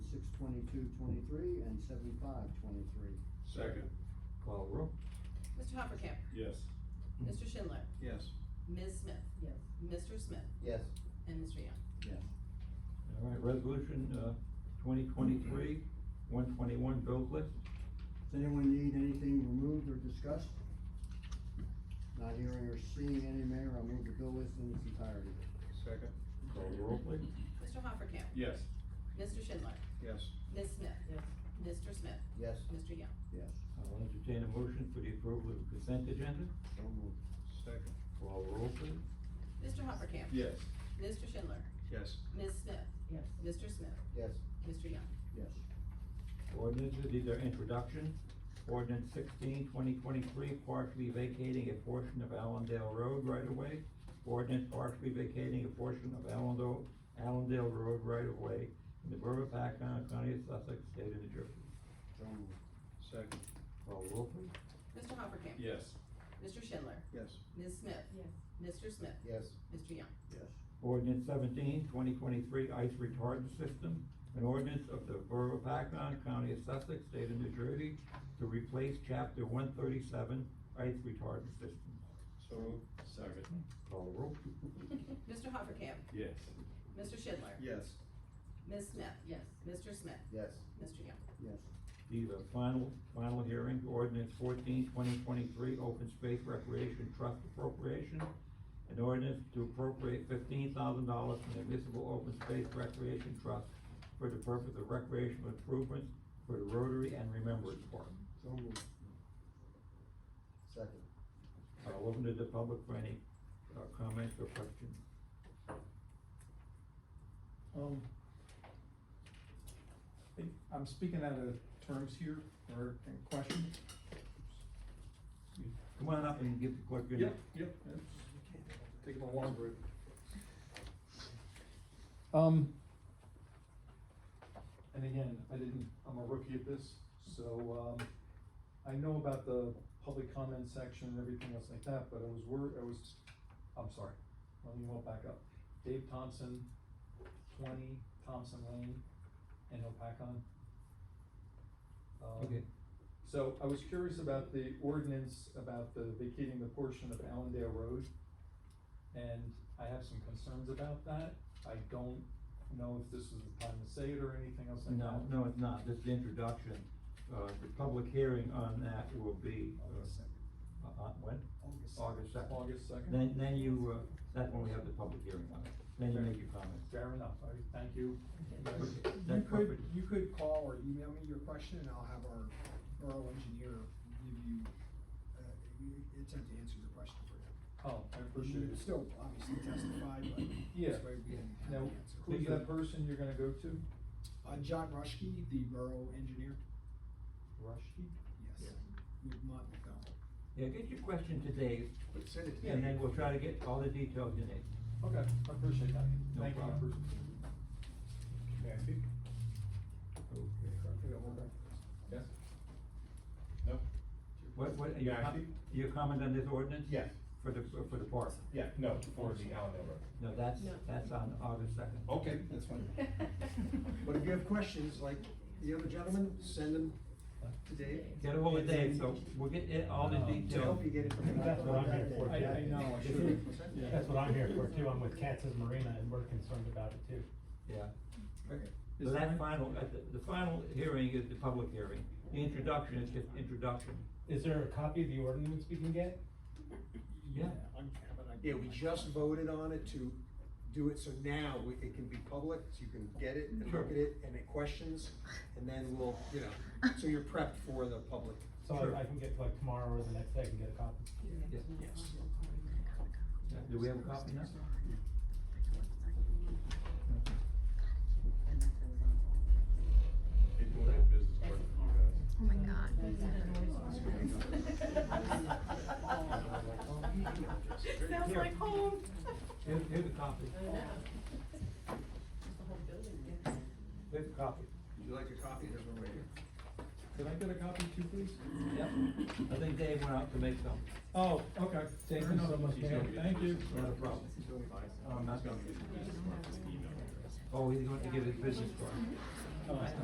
twenty-two twenty-three and seventy-five twenty-three. Second. Call the roll. Mr. Hoppercamp, Yes. Mr. Schindler, Yes. Ms. Smith. Yes. Mr. Smith Yes. and Mr. Young. Yes. All right, resolution, uh, twenty twenty-three, one twenty-one, bills list. Does anyone need anything removed or discussed? Not hearing or seeing any, Mayor, I'll move the bill list in its entirety. Second. Call the roll, please. Mr. Hoppercamp, Yes. Mr. Schindler, Yes. Ms. Smith. Yes. Mr. Smith, Yes. Mr. Young. Yes. I'll entertain a motion for the approval of the consent agenda. So moved. Second. Call the roll, please. Mr. Hoppercamp. Yes. Mr. Schindler, Yes. Ms. Smith. Yes. Mr. Smith, Yes. Mr. Young. Yes. Ordinances, these are introductions. Ordinance 16 2023, partially vacating a portion of Allendale Road right of way. Ordinance partially vacating a portion of Allendale, Allendale Road right of way in the Borough of Paxton, County of Sussex, State of New Jersey. So moved. Second. Call the roll, please. Mr. Hoppercamp. Yes. Mr. Schindler, Yes. Ms. Smith. Yes. Mr. Smith, Yes. Mr. Young. Yes. Ordinance 17 2023, ice retardant system. An ordinance of the Borough of Paxton, County of Sussex, State of New Jersey to replace chapter one thirty-seven ice retardant system. So moved. Second. Call the roll. Mr. Hoppercamp, Yes. Mr. Schindler, Yes. Ms. Smith. Yes. Mr. Smith, Yes. Mr. Young. Yes. These are final, final hearing, ordinance 14 2023, open space recreation trust appropriation. An ordinance to appropriate fifteen thousand dollars from the municipal open space recreation trust for the purpose of recreational improvements for the Rotary and Remembrance Park. So moved. Second. I'll Uh, open to the public for any, uh, comments or questions. Um, I think I'm speaking out of terms here, or in question. Come on up and give the clerk your Yep, name. yep. Take my water break. Um, and again, I didn't, I'm a rookie at this, so, um, I know about the public comment section and everything else like that, but I was wor, I was, I'm sorry, let me walk back up. Dave Thompson, twenty Thompson Lane in Opakon. Um, Okay. So I was curious about the ordinance about the vacating the portion of Allendale Road. And I have some concerns about that. I don't know if this was the time to say it or anything else like No, that. no, it's not, this is the introduction, uh, the public hearing on that will be, uh, uh, when? August second. August second. Then, then you, uh, that's when we have the public hearing on it, then you make your comments. Fair enough. All right, thank you. You That's could, perfect. you could call or email me your question and I'll have our borough engineer give you, uh, attempt to answer your question for you. Oh, I appreciate it. You Still obviously testify, but Yeah. this way we can have Now, the answer. who's that person you're gonna go to? Uh, John Rushkey, the borough engineer, Rushdie? yes, with Mont McDonald. Yeah, get your question today, Send it to and me. then we'll try to get all the details you need. Okay, I appreciate that. No Thank you. problem. May I speak? Okay. Okay, hold on. Yes. No. What, what, your, Yeah, I com- think- your comment on this ordinance? Yes. For the, for the park? Yeah, no, for the Allendale Road. No, that's, No. that's on August second. Okay, that's fine. But if you have questions, like the other gentleman, send them to Dave. Get ahold of Dave, so we'll get it, all the Um, to details. To help you get it. from- That's what I'm here for. I, I know, I This should. is- That's what I'm here for too, I'm with Katz's Marina and we're concerned about it too. Yeah. Okay. So that final, uh, the, the final hearing is the public hearing. The introduction is just introduction. Is there a copy of the ordinance we can get? Yeah. Yeah, we just voted on it to do it, so now we- it can be public, so you can get it and Sure. look at it and it questions, and then we'll, you know, so you're prepped for the public. So Sure. I- I can get like tomorrow or the next day, I can get a copy. Yes. Yes. Yeah, Do we have a copy now? They doing that business work for you guys. Oh my god. Sounds like home. Here, here's a copy. Here's a copy. Would you like a copy? There's one right here. Could I get a copy too, please? Yep. I think Dave went out to make some. Oh, okay. Thank Fair you so enough. much, Okay, Dave. Thank you. Not a problem. Um, Oh, I'm not gonna. Oh, he's going to give his business card. Oh,